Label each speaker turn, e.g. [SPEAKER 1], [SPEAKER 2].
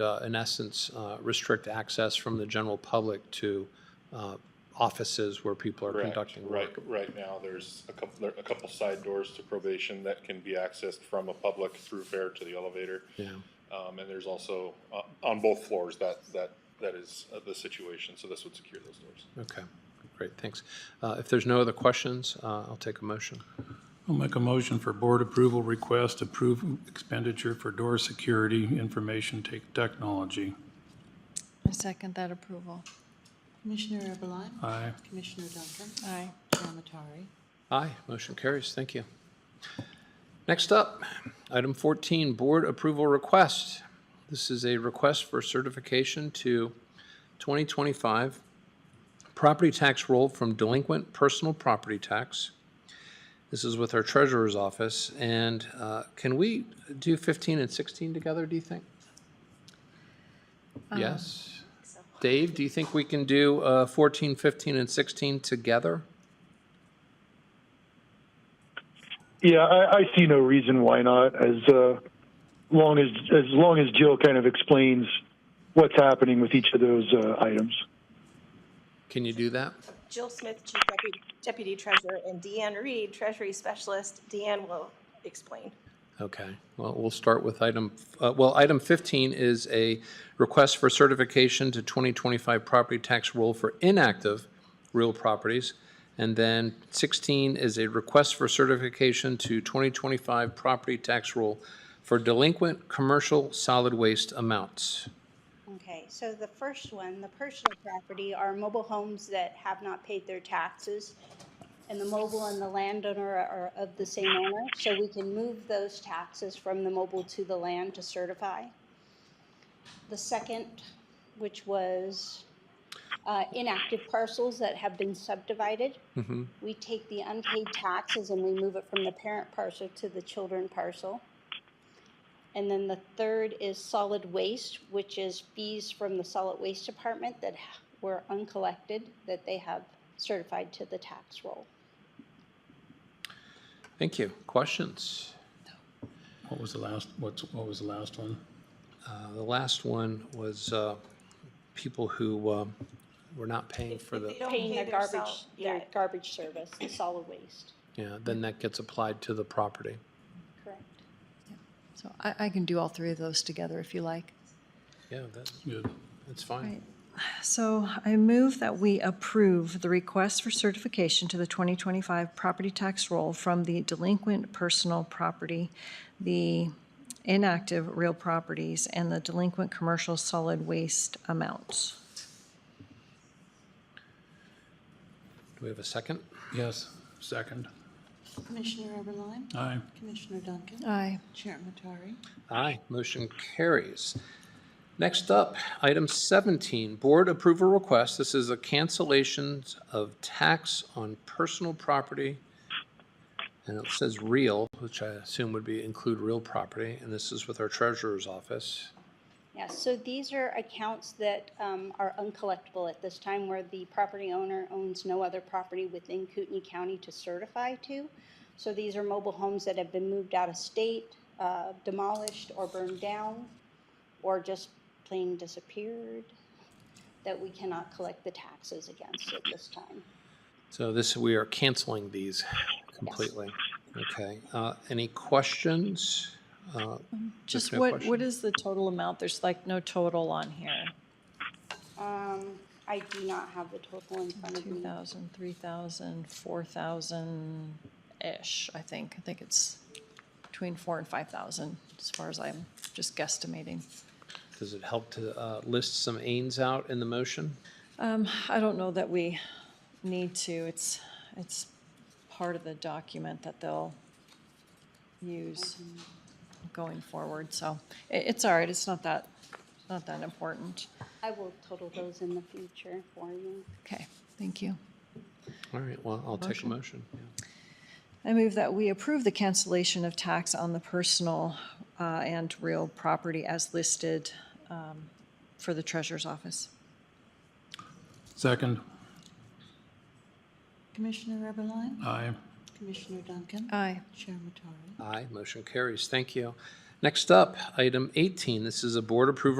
[SPEAKER 1] uh, in essence, uh, restrict access from the general public to uh, offices where people are
[SPEAKER 2] Correct.
[SPEAKER 1] conducting
[SPEAKER 2] Right,
[SPEAKER 1] work.
[SPEAKER 2] right now, there's a couple, there are a couple side doors to probation that can be accessed from a public through fare to the elevator.
[SPEAKER 1] Yeah,
[SPEAKER 2] Um, and there's also, uh, on both floors, that, that, that is uh, the situation, so this would secure those doors.
[SPEAKER 1] okay, great, thanks. Uh, If there's no other questions, uh, I'll take a motion.
[SPEAKER 3] I'll make a motion for board approval request, approve expenditure for door security information tech- technology.
[SPEAKER 4] I second that approval.
[SPEAKER 5] Commissioner Eberline?
[SPEAKER 3] Aye.
[SPEAKER 5] Commissioner Duncan?
[SPEAKER 4] Aye.
[SPEAKER 5] Chair Matari?
[SPEAKER 1] Aye, motion carries, thank you. Next up, item 14, board approval request. This is a request for certification to 2025 property tax roll from delinquent personal property tax. This is with our treasurer's office, and uh, can we do 15 and 16 together, do you think? Yes? Dave, do you think we can do uh, 14, 15, and 16 together?
[SPEAKER 6] Yeah, I, I see no reason why not. As uh, long as as long as Jill kind of explains what's happening with each of those uh, items.
[SPEAKER 1] Can you do that?
[SPEAKER 7] Jill Smith, Chief Deputy- Deputy Treasurer, and Deanne Reed, Treasury Specialist. Deanne will explain.
[SPEAKER 1] Okay, well, we'll start with item, uh, well, item 15 is a request for certification to 2025 property tax roll for inactive real properties. And then 16 is a request for certification to 2025 property tax roll for delinquent commercial solid waste amounts.
[SPEAKER 8] Okay, so the first one, the personal property are mobile homes that have not paid their taxes. And the mobile and the landowner are of the same owner, so we can move those taxes from the mobile to the land to certify. The second, which was uh, inactive parcels that have been subdivided. We take the unpaid taxes and we move it from the parent parcel to the children parcel. And then the third is solid waste, which is fees from the solid waste department that ha- were uncollected that they have certified to the tax roll.
[SPEAKER 1] Thank you. Questions?
[SPEAKER 3] What was the last, what's, what was the last one?
[SPEAKER 1] Uh, The last one was uh, people who um, were not paying for the,
[SPEAKER 7] They don't
[SPEAKER 8] Paying
[SPEAKER 7] pay
[SPEAKER 8] their
[SPEAKER 7] their
[SPEAKER 8] garbage,
[SPEAKER 7] salt.
[SPEAKER 8] their
[SPEAKER 7] Yeah,
[SPEAKER 8] garbage service, the solid waste.
[SPEAKER 1] yeah, then that gets applied to the property.
[SPEAKER 8] Correct.
[SPEAKER 4] So I, I can do all three of those together if you like.
[SPEAKER 1] Yeah, that's,
[SPEAKER 3] Good.
[SPEAKER 1] that's fine.
[SPEAKER 4] Right. So I move that we approve the request for certification to the 2025 property tax roll from the delinquent personal property, the inactive real properties, and the delinquent commercial solid waste amounts.
[SPEAKER 1] Do we have a second?
[SPEAKER 3] Yes, second.
[SPEAKER 5] Commissioner Eberline?
[SPEAKER 3] Aye.
[SPEAKER 5] Commissioner Duncan?
[SPEAKER 4] Aye.
[SPEAKER 5] Chair Matari?
[SPEAKER 1] Aye, motion carries. Next up, item 17, board approval request. This is a cancellation of tax on personal property. And it says real, which I assume would be include real property, and this is with our treasurer's office.
[SPEAKER 8] Yeah, so these are accounts that um, are uncollectible at this time where the property owner owns no other property within Kootenai County to certify to. So these are mobile homes that have been moved out of state, uh, demolished or burned down, or just plain disappeared, that we cannot collect the taxes against at this time.
[SPEAKER 1] So this, we are canceling these completely. Okay, uh, any questions? Uh,
[SPEAKER 9] Just
[SPEAKER 1] no
[SPEAKER 9] what,
[SPEAKER 1] question.
[SPEAKER 9] what is the total amount? There's like no total on here.
[SPEAKER 8] Um, I do not have the total in front of me.
[SPEAKER 9] 2,000, 3,000, 4,000-ish, I think. I think it's between 4 and 5,000, as far as I'm just guesstimating.
[SPEAKER 1] Does it help to uh, list some ains out in the motion?
[SPEAKER 9] Um, I don't know that we need to. It's, it's part of the document that they'll use going forward, so i it's all right. It's not that, not that important.
[SPEAKER 8] I will total those in the future for you.
[SPEAKER 9] Okay, thank you.
[SPEAKER 1] All right, well, I'll take a motion. yeah.
[SPEAKER 9] I move that we approve the cancellation of tax on the personal uh, and real property as listed um, for the treasurer's office.
[SPEAKER 3] Second.
[SPEAKER 5] Commissioner Eberline?
[SPEAKER 3] Aye.
[SPEAKER 5] Commissioner Duncan?
[SPEAKER 4] Aye.
[SPEAKER 5] Chair Matari?
[SPEAKER 1] Aye, motion carries. Thank you. Next up, item 18. This is a board approval